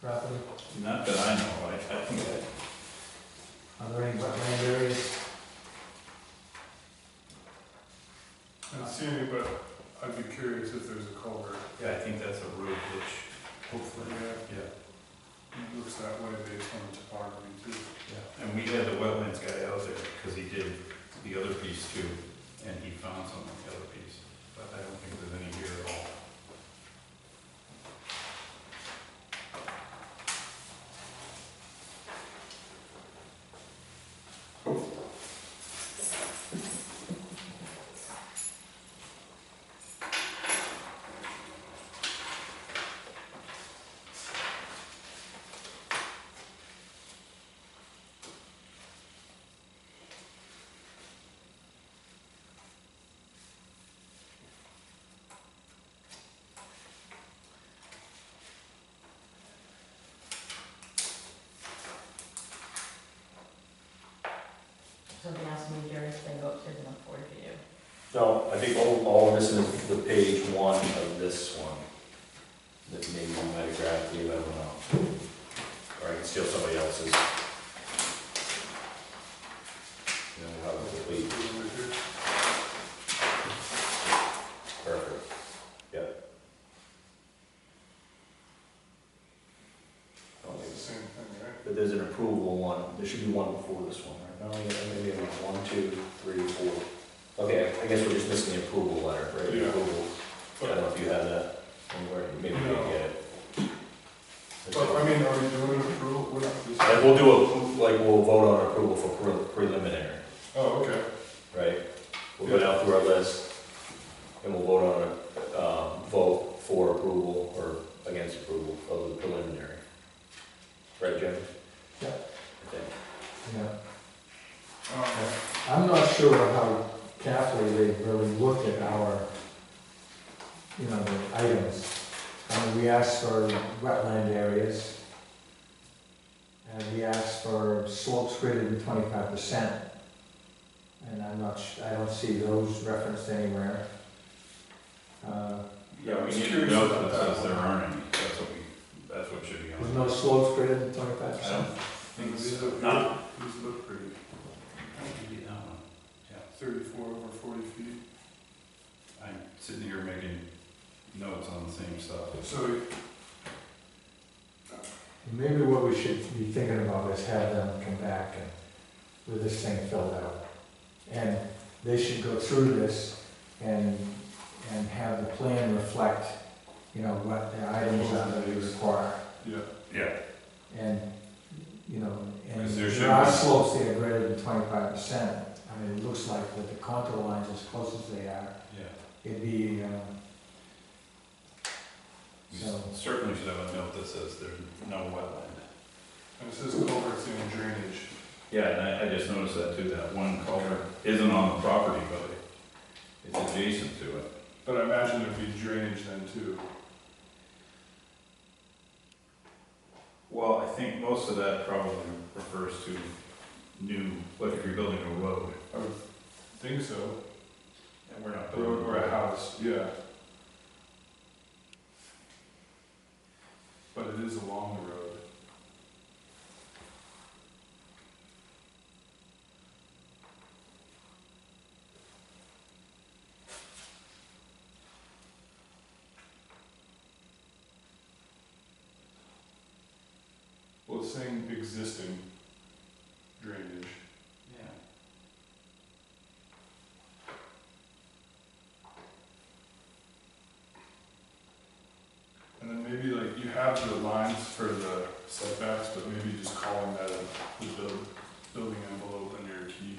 property? Not that I know, I, I think that Are there any wetland areas? I don't see any, but I'd be curious if there's a culvert. Yeah, I think that's a road ditch, hopefully, Yeah, yeah, it looks that way based on the topography too. yeah. And we had the wetlands guy out there, because he did the other piece too, and he found some of the other piece, but I don't think there's any here at all. Something else major, then go upstairs and look forward to you. No, I think all, all of this is the page one of this one. That maybe you might have grabbed, Dave, I don't know. Or I can steal somebody else's. You know, we'll have a complete, perfect. Yep. I don't It's the think- same thing, right? But there's an approval one, there should be one before this one, right? No, yeah, maybe one, two, three, four. Okay, I guess we're just missing the approval letter, right? The Yeah. Approval. I don't know if you have that anywhere, maybe we can get it. But I mean, are we doing approval? We're not just- Like, we'll do a, like, we'll vote on approval for pre- preliminary, Oh, okay. right? We'll go down through our list, and we'll vote on a, um, vote for approval or against approval of the preliminary. Right, Jim? Yeah. I think. Yeah. Um, I'm not sure how carefully they really looked at our, you know, the items. I mean, we asked for wetland areas. And we asked for slopes greater than twenty-five percent. And I'm not, su- I don't see those referenced anywhere. Uh, Yeah, I We was need to curious know about that that says there one. aren't any, that's what we, that's what should be on. There's no slopes greater than twenty-five I percent. don't think These so, look not, pretty- These look pretty, maybe that one. thirty-four over forty feet. I'm sitting here making notes on the same stuff. So Maybe what we should be thinking about is have them come back and, with this thing filled out. And they should go through this and, and have the plan reflect, you know, what the items are that we require. Yeah. And, you know, and Because there should there are be- slopes that are greater than twenty-five percent. I mean, it looks like with the contour lines as close as they are, Yeah. it'd be, um, We so, Certainly should have a note that says there's no wetland. and it says culverts and drainage. Yeah, and I, I just noticed that too, that one culvert isn't on the property, but it's adjacent to it. But I imagine it'd be drainage then too. Well, I think most of that probably refers to new, like if you're building a road, I would think so. and we're not building. Road or a house, yeah. But it is along the road. Well, it's saying existing drainage. Yeah. And then maybe like you have the lines for the setbacks, but maybe just calling that a- the build, building envelope under your key.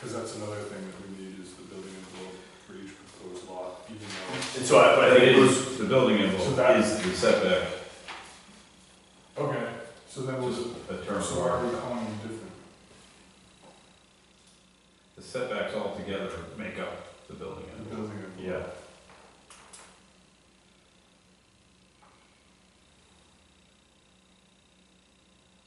Cause that's another thing that we need is the building envelope for each proposed lot, even though. And so I, but I think it was, the building So envelope that- is the setback, Okay, so that was, just so a term of why art. are we calling them different? The setbacks altogether make up the building The envelope. building envelope. Yeah.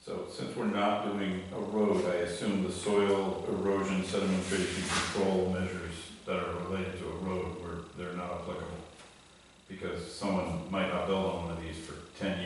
So since we're not doing a road, I assume the soil erosion sedimentation control measures that are related to a road were, they're not applicable. Because someone might not build on one of these for ten years.